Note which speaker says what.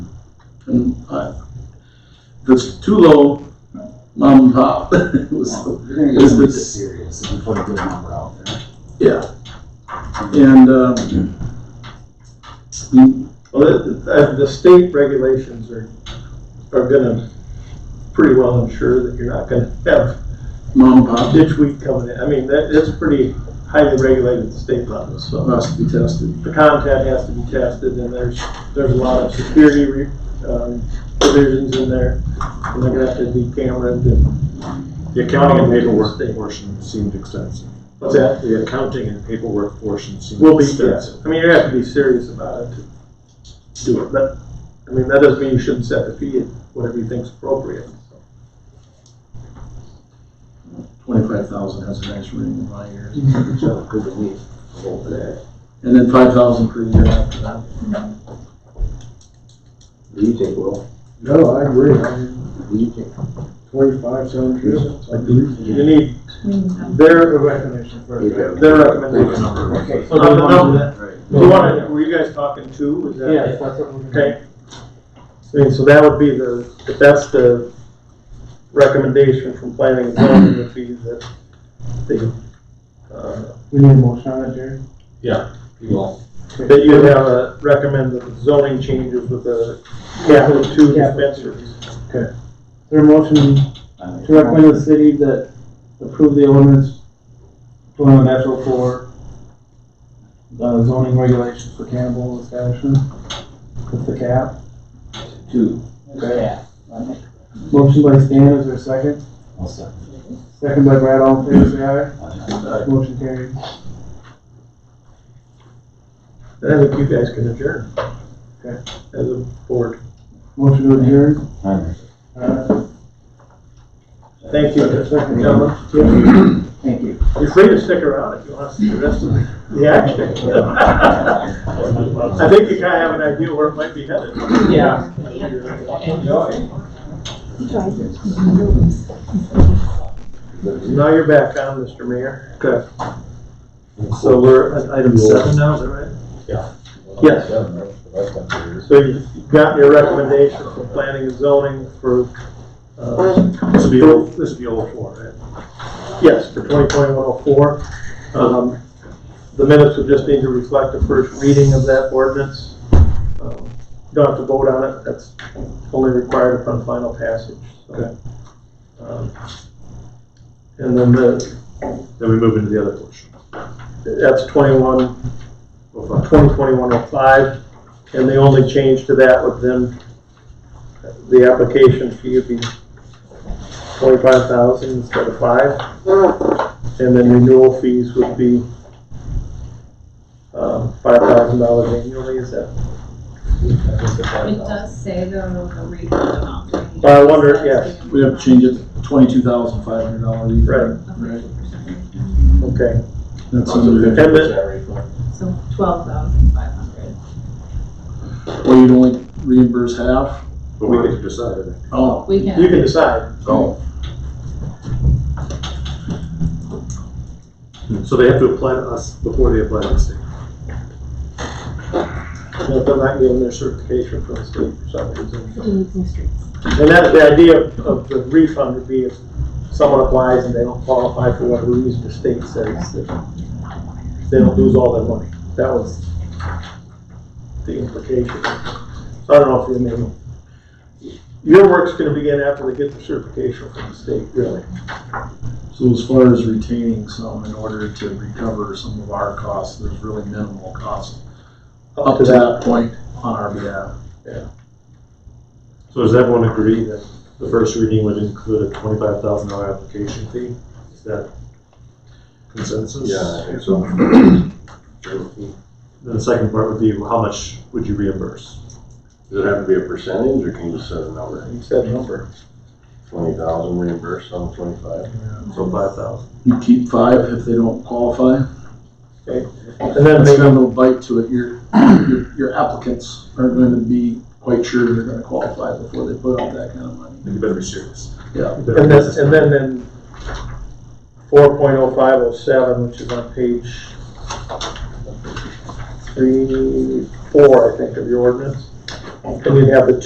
Speaker 1: And I, if it's too low, mom and pop. It was-
Speaker 2: You're gonna get something serious if you put a good number out there.
Speaker 1: yeah. And, um, you-
Speaker 3: Well, the, the- the state regulations are, are gonna pretty well ensure that you're not gonna have
Speaker 1: mom and pop
Speaker 3: ditch weed coming in. I mean, that, it's pretty highly regulated at the state level, so
Speaker 1: has to be tested.
Speaker 3: the content has to be tested and there's, there's a lot of security, re- um, provisions in there. And they're gonna have to be cameras and,
Speaker 4: The accounting and paperwork portion seemed extensive.
Speaker 3: what's that?
Speaker 4: The accounting and paperwork portion seemed
Speaker 3: Will be, yeah,
Speaker 4: extensive.
Speaker 3: I mean, you have to be serious about it to do it, but, I mean, that doesn't mean you shouldn't set the fee at whatever you think's appropriate, so.
Speaker 1: Twenty-five thousand has a nice ring in my ears.
Speaker 2: So, good belief. Hold it.
Speaker 1: And then five thousand per year after that.
Speaker 2: What do you think, Will?
Speaker 5: No, I agree, I mean,
Speaker 2: What do you think?
Speaker 5: twenty-five sounds good. I believe
Speaker 3: You need
Speaker 6: Well,
Speaker 3: their,
Speaker 5: recommendation
Speaker 3: their recommendation.
Speaker 2: Okay.
Speaker 3: So the number,
Speaker 2: Right.
Speaker 3: you wanna, were you guys talking two, was that?
Speaker 5: Yes, that's what we're gonna.
Speaker 3: Okay. I mean, so that would be the, if that's the recommendation from planning and zoning, would be that they, uh,
Speaker 5: We need a motion on it, Jerry?
Speaker 2: You will.
Speaker 3: That you have uh, recommend the zoning changes with the capital two dispensaries.
Speaker 5: There a motion to recommend the city that approve the ordinance twenty dash oh four, the zoning regulations for cannibal establishment, with the cap.
Speaker 2: Two.
Speaker 5: Okay. Motion by Stan, is there a second?
Speaker 2: I'll second.
Speaker 5: Second by Brad, all in favor, say aye. Motion carried.
Speaker 3: And I think you guys can adjourn.
Speaker 5: Okay.
Speaker 3: As a board.
Speaker 5: Motion to adjourn.
Speaker 2: Aye.
Speaker 5: Uh,
Speaker 3: Thank you, gentlemen.
Speaker 5: Thank you.
Speaker 3: You're free to stick around if you want to see the rest of the action. I think you kind of have an idea where it might be headed.
Speaker 5: Yeah.
Speaker 3: Now you're back on, Mr. Mayor. Good. So we're at item seven now, is that right? Yes. So you have got your recommendation for planning and zoning for, uh,
Speaker 4: This would be, all- this would be all four, right?
Speaker 3: yes, for twenty twenty one oh four. Um, the minutes would just need to reflect the first reading of that ordinance. Um, Don't have to vote on it, that's only required upon final passage, so. Um, And then the,
Speaker 4: Then we move into the other portion.
Speaker 3: that's twenty-one
Speaker 4: Well, fine.
Speaker 3: 2021-05, and the only change to that would then, the application fee would be 25,000 instead of 5. And then renewal fees would be um, $5,000 annually, is that?
Speaker 6: It does say though, the refund amount.
Speaker 3: But I wonder, yes,
Speaker 1: We have to change it to twenty-two thousand five hundred dollar
Speaker 3: Right.
Speaker 1: refund. Right.
Speaker 3: okay.
Speaker 1: That's under,
Speaker 3: And then,
Speaker 6: So twelve thousand five hundred.
Speaker 1: or you'd only reimburse half?
Speaker 4: But we get to decide, I think.
Speaker 1: Oh,
Speaker 6: We
Speaker 3: you
Speaker 6: can,
Speaker 3: can decide.
Speaker 1: oh,
Speaker 4: So they have to apply to us before they apply to the state.
Speaker 3: You know, If they're not getting their certification from the state for some reason.
Speaker 6: using streets.
Speaker 3: And that's the idea of- of the refund would be if someone applies and they don't qualify for whatever reason the state says that they don't lose all their money. That was the implication. So I don't know if you mean, your work's gonna begin after they get the certification from the state, really.
Speaker 1: so as far as retaining some in order to recover some of our costs, there's really minimal cost up to that point on our behalf.
Speaker 4: So does everyone agree that the first reading would include a twenty-five thousand dollar application fee? Is that consensus?
Speaker 2: Yeah, I think so.
Speaker 4: Then the second part would be, well, how much would you reimburse?
Speaker 7: Does it have to be a percentage or can you just set a number?
Speaker 3: You said number.
Speaker 7: Twenty thousand reimbursed on twenty-five?
Speaker 4: So five thousand.
Speaker 1: You keep five if they don't qualify.
Speaker 3: And then
Speaker 1: That's
Speaker 3: maybe,
Speaker 1: got no bite to it. Your, your- your applicants aren't going to be quite sure they're gonna qualify before they put out that kind of money.
Speaker 4: You better be serious.
Speaker 1: Yeah.
Speaker 4: You better
Speaker 3: and
Speaker 4: be
Speaker 3: then, and then in four point oh five oh seven, which is on page three, four, I think, of your ordinance. And you have the